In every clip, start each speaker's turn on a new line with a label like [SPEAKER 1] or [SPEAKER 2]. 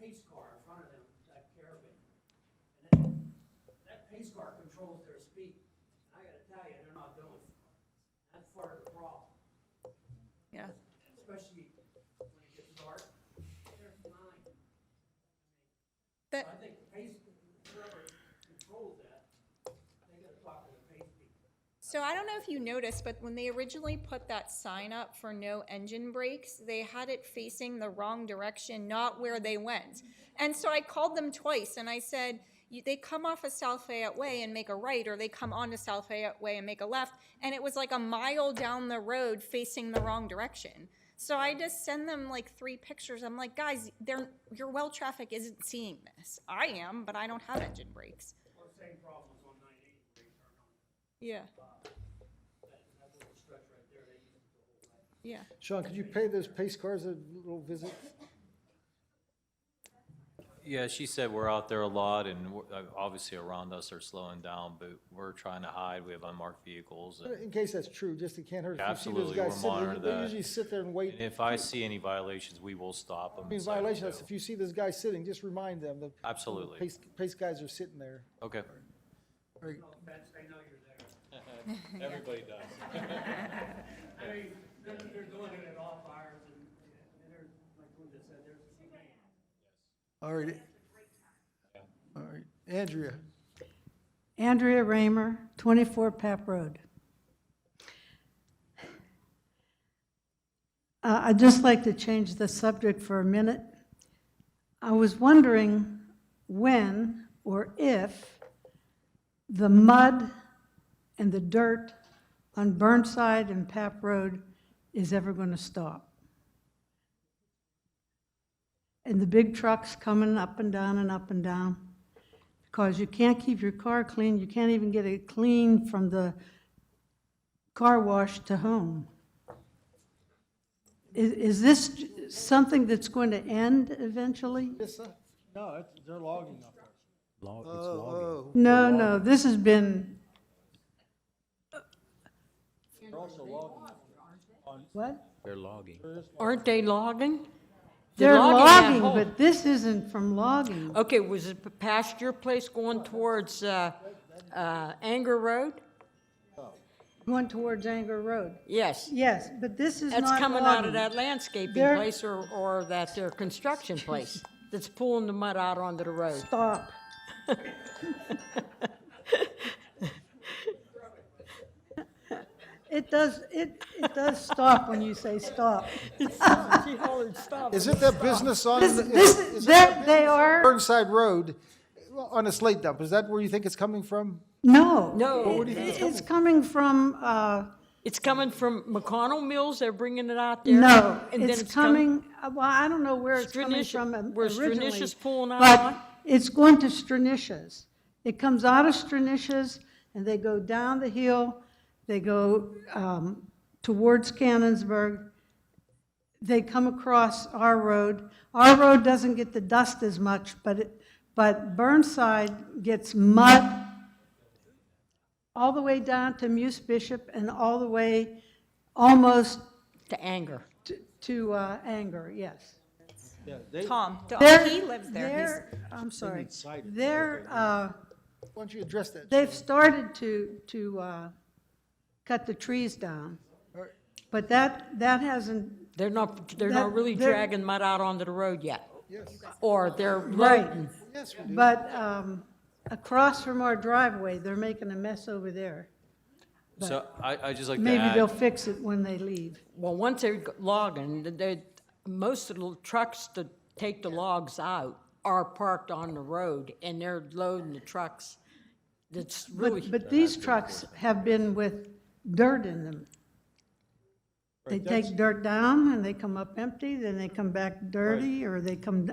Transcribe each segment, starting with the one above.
[SPEAKER 1] pace car in front of them, that caravan. And then, that pace car controls their speed. And I gotta tell you, they're not doing it. That's part of the problem,
[SPEAKER 2] yeah.
[SPEAKER 1] especially when it gets dark. They're flying. So I
[SPEAKER 2] That,
[SPEAKER 1] think the pace, whoever controls that, they gotta talk to the pace people.
[SPEAKER 2] so I don't know if you noticed, but when they originally put that sign up for no engine brakes, they had it facing the wrong direction, not where they went. And so I called them twice and I said, you, they come off of South Fayette Way and make a right, or they come onto South Fayette Way and make a left. And it was like a mile down the road facing the wrong direction. So I just send them like three pictures. I'm like, guys, they're, your well traffic isn't seeing this. I am, but I don't have engine brakes.
[SPEAKER 1] Or same problems on nine eighty, where you turn on,
[SPEAKER 2] Yeah,
[SPEAKER 1] uh, that, that little stretch right there, they use it the whole way.
[SPEAKER 2] yeah.
[SPEAKER 3] Sean, could you pay those pace cars a little visit?
[SPEAKER 4] Yeah, she said we're out there a lot and we're- uh, obviously around us are slowing down, but we're trying to hide. We have unmarked vehicles. and-
[SPEAKER 3] Uh, In case that's true, just it can't hurt. if you see those
[SPEAKER 4] Absolutely,
[SPEAKER 3] guys
[SPEAKER 4] we'll
[SPEAKER 3] sitting, they-
[SPEAKER 4] monitor
[SPEAKER 3] They
[SPEAKER 4] that.
[SPEAKER 3] usually sit there and wait.
[SPEAKER 4] And if I see any violations, we will stop them.
[SPEAKER 3] I mean, violation, that's if you see those guys sitting, just remind them that.
[SPEAKER 4] Absolutely.
[SPEAKER 3] Pace, pace guys are sitting there.
[SPEAKER 4] Okay.
[SPEAKER 1] No offense, they know you're there.
[SPEAKER 4] Everybody does.
[SPEAKER 1] I mean, they're, they're doing it at off hours and, and they're, like Linda said, they're.
[SPEAKER 5] All right. All right, Andrea,
[SPEAKER 6] Andrea Raymer, 24 Pap Road. Uh, I'd just like to change the subject for a minute. I was wondering when or if the mud and the dirt on Burnside and Pap Road is ever going to stop. And the big trucks coming up and down and up and down because you can't keep your car clean, you can't even get it clean from the car wash to home. Is, is this something that's going to end eventually?
[SPEAKER 3] Lisa?
[SPEAKER 5] no, it's- they're logging up there.
[SPEAKER 7] Log, it's logging.
[SPEAKER 5] Oh,
[SPEAKER 6] No, no, this has been,
[SPEAKER 5] oh, they're also logging.
[SPEAKER 6] what?
[SPEAKER 7] They're logging.
[SPEAKER 8] Aren't they logging?
[SPEAKER 6] They're
[SPEAKER 8] that
[SPEAKER 6] logging,
[SPEAKER 8] hole.
[SPEAKER 6] but this isn't from logging.
[SPEAKER 8] Okay, was it past your place going towards uh, uh, Anger Road?
[SPEAKER 6] Going towards Anger Road.
[SPEAKER 8] Yes.
[SPEAKER 6] Yes, but this is not
[SPEAKER 8] That's coming out
[SPEAKER 6] logging.
[SPEAKER 8] of that landscaping
[SPEAKER 6] They're-
[SPEAKER 8] place or, or that their construction place that's pulling the mud out onto the road.
[SPEAKER 6] Stop. It does, it, it does stop when you say stop.
[SPEAKER 8] She hollered, "Stop."
[SPEAKER 3] Is it that business on,
[SPEAKER 6] This,
[SPEAKER 3] is it-
[SPEAKER 6] this,
[SPEAKER 3] is it that
[SPEAKER 6] that, they
[SPEAKER 3] bu-
[SPEAKER 6] are,
[SPEAKER 3] Burnside Road uh, on a slate dump? Is that where you think it's coming from?
[SPEAKER 6] no.
[SPEAKER 8] No. Well, where do
[SPEAKER 6] It- It's coming from, uh,
[SPEAKER 8] It's coming from McConnell Mills, they're bringing it out there?
[SPEAKER 6] no,
[SPEAKER 8] and then
[SPEAKER 6] it's
[SPEAKER 8] com-
[SPEAKER 6] coming, uh, well, I don't know where it's coming
[SPEAKER 8] Stranicia-
[SPEAKER 6] from
[SPEAKER 8] where
[SPEAKER 6] originally.
[SPEAKER 8] Stranicia's pulling out
[SPEAKER 6] But
[SPEAKER 8] on?
[SPEAKER 6] it's going to Stranicia's. It comes out of Stranicia's and they go down the hill, they go, um, towards Cannonsburg. They come across our road. Our road doesn't get the dust as much, but it, but Burnside gets mud all the way down to Muse Bishop and all the way almost
[SPEAKER 8] To Anger.
[SPEAKER 6] to- to uh, anger, yes.
[SPEAKER 5] Yeah, they,
[SPEAKER 2] Tom,
[SPEAKER 6] They're-
[SPEAKER 2] he lives there. He's-
[SPEAKER 6] they're- I'm sorry.
[SPEAKER 5] need cider.
[SPEAKER 6] They're, uh,
[SPEAKER 3] Why don't you address that?
[SPEAKER 6] they've started to, to uh, cut the trees down, but that, that hasn't,
[SPEAKER 8] They're not, they're
[SPEAKER 6] That-
[SPEAKER 8] not really
[SPEAKER 6] they're-
[SPEAKER 8] dragging mud out onto the road yet.
[SPEAKER 3] Yes,
[SPEAKER 8] Or they're
[SPEAKER 6] right.
[SPEAKER 8] loading.
[SPEAKER 3] yes, we do.
[SPEAKER 6] But um, across from our driveway, they're making a mess over there.
[SPEAKER 4] So I, I just like to
[SPEAKER 6] Maybe
[SPEAKER 4] add-
[SPEAKER 6] they'll fix it when they leave.
[SPEAKER 8] Well, once they're logging, they, most of the trucks that take the logs out are parked on the road, and they're loading the trucks. That's really,
[SPEAKER 6] But, but these trucks have been with dirt in them. They take dirt down and they come up empty, then they come back dirty, or they come d-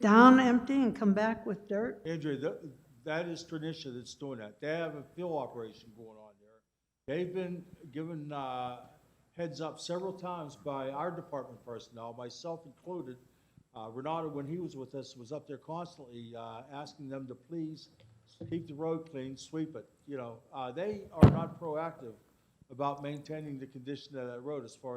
[SPEAKER 6] down empty and come back with dirt.
[SPEAKER 5] Andrea, that, that is Trinicia that's doing that. They have a field operation going on there. They've been given, uh, heads up several times by our department personnel, myself included. Uh, Renato, when he was with us, was up there constantly, uh, asking them to please keep the road clean, sweep it, you know. Uh, they are not proactive about maintaining the condition of that road as far